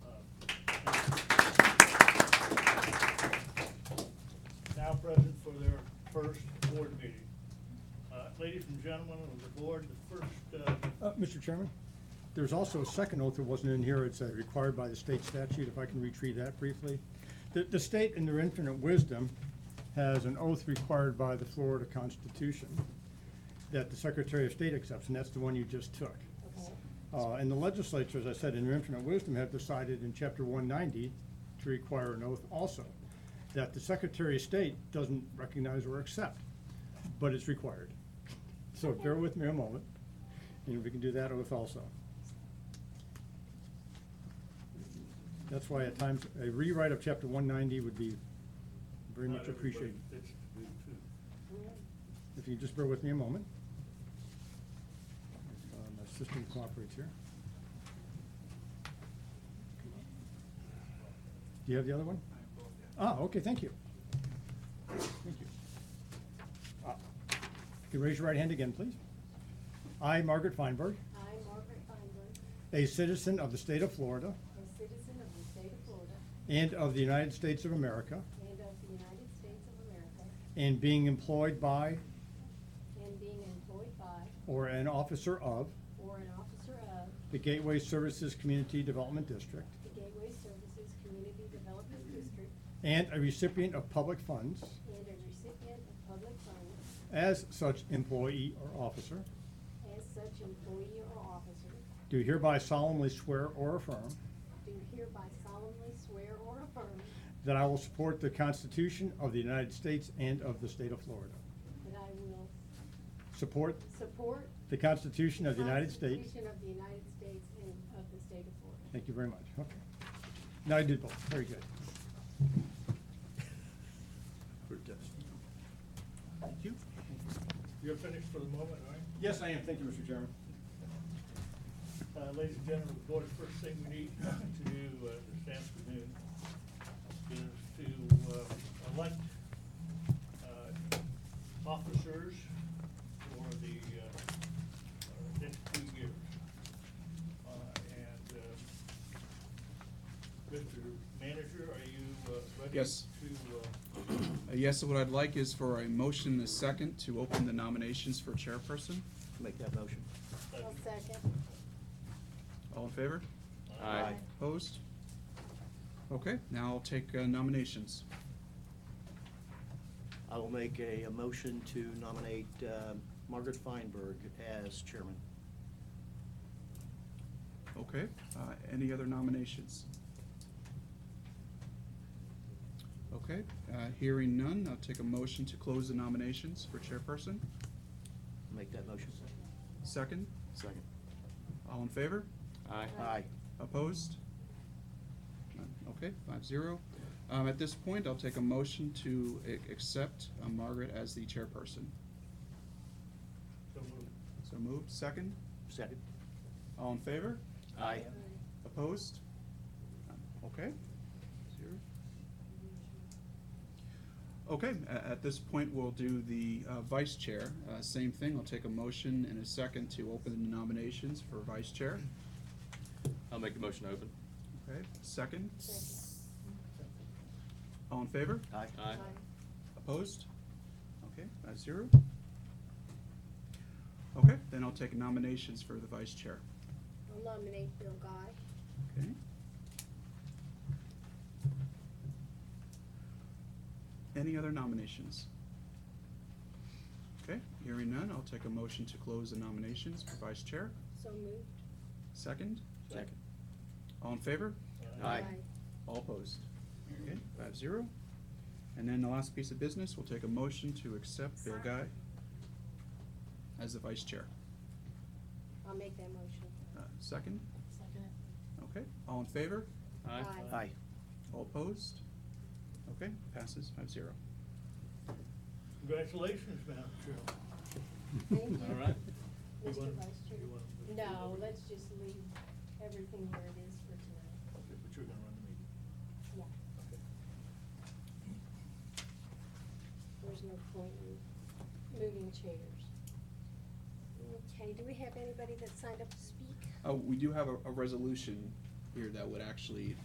Uh, Uh, Ladies and gentlemen of the board, the first, uh, Uh, Mr. Chairman, there's also a second oath that wasn't in here. It's uh, required by the state statute, if I can retrieve that briefly. The, the state in their infinite wisdom has an oath required by the Florida Constitution that the Secretary of State accepts, and that's the one you just took. Uh, and the legislature, as I said, in their infinite wisdom, have decided in chapter one ninety to require an oath also, that the Secretary of State doesn't recognize or accept, but it's required. So bear with me a moment, and we can do that oath also. That's why at times, a rewrite of chapter one ninety would be very not much everybody appreciated. fits the bill, too. If you just bear with me a moment. If, uh, My system cooperates here. Do you have the other one? Ah, okay, thank you. Thank you. Ah, Can you raise your right hand again, please? I, Margaret Feinberg, I, Margaret Feinberg, a citizen of the state of Florida a citizen of the state of Florida and of the United States of America, and of the United States of America, and being employed by and being employed by or an officer of or an officer of the Gateway Services Community Development District, the Gateway Services Community Development District and a recipient of public funds and a recipient of public funds as such employee or officer, as such employee or officer, do hereby solemnly swear or affirm do hereby solemnly swear or affirm that I will support the Constitution of the United States and of the state of Florida. that I will Support support the Constitution of the United States. Constitution of the United States and of the state of Florida. Thank you very much. Okay. Now I did both. Very good. Thank you. You're finished for the moment, all right? Yes, I am. Thank you, Mr. Chairman. Uh, Ladies and gentlemen, of course, first thing we need to do uh, this afternoon is to uh, elect uh, officers for the uh, uh, next two years. Uh, And uh, Mr. Manager, are you uh, ready? Yes. To, uh, Uh, Yes, so what I'd like is for a motion and a second to open the nominations for chairperson. Make that motion. I'll second. All in favor? Uh, Aye. Opposed? Okay, now I'll take uh, nominations. I will make a, a motion to nominate uh, Margaret Feinberg as chairman. Okay, uh, any other nominations? Okay, uh, hearing none, I'll take a motion to close the nominations for chairperson. Make that motion. Second, Second. all in favor? Aye. Aye. Opposed? None. Okay, five zero. Um, at this point, I'll take a motion to a- accept uh, Margaret as the chairperson. so moved. So moved, second. Second. All in favor? Aye. Opposed? None. Okay. Zero. Okay, a- at this point, we'll do the, uh, vice chair. Uh, same thing, I'll take a motion and a second to open the nominations for vice chair. I'll make the motion open. Okay, second. Second. All in favor? Aye. Aye. Opposed? Okay, five zero. Okay, then I'll take nominations for the vice chair. I'll nominate Bill Guy. Okay. Any other nominations? Okay, hearing none, I'll take a motion to close the nominations for vice chair. So moved. Second, Second. all in favor? Aye. All opposed? Okay, five zero. And then the last piece of business, we'll take a motion to accept Bill Guy as the vice chair. I'll make that motion. Uh, Second, Second. okay, all in favor? Aye. Aye. All opposed? Okay, passes five zero. Congratulations, Madam Chair. Thank you. All right. You Mr. want- Vice Chair. you want- No, let's just leave everything where it is for tonight. Okay, But you're gonna run the meeting. Yeah, there's no point in moving chairs. Okay, do we Oh, have anybody that signed up to speak? Uh, we do have a, a resolution here that would actually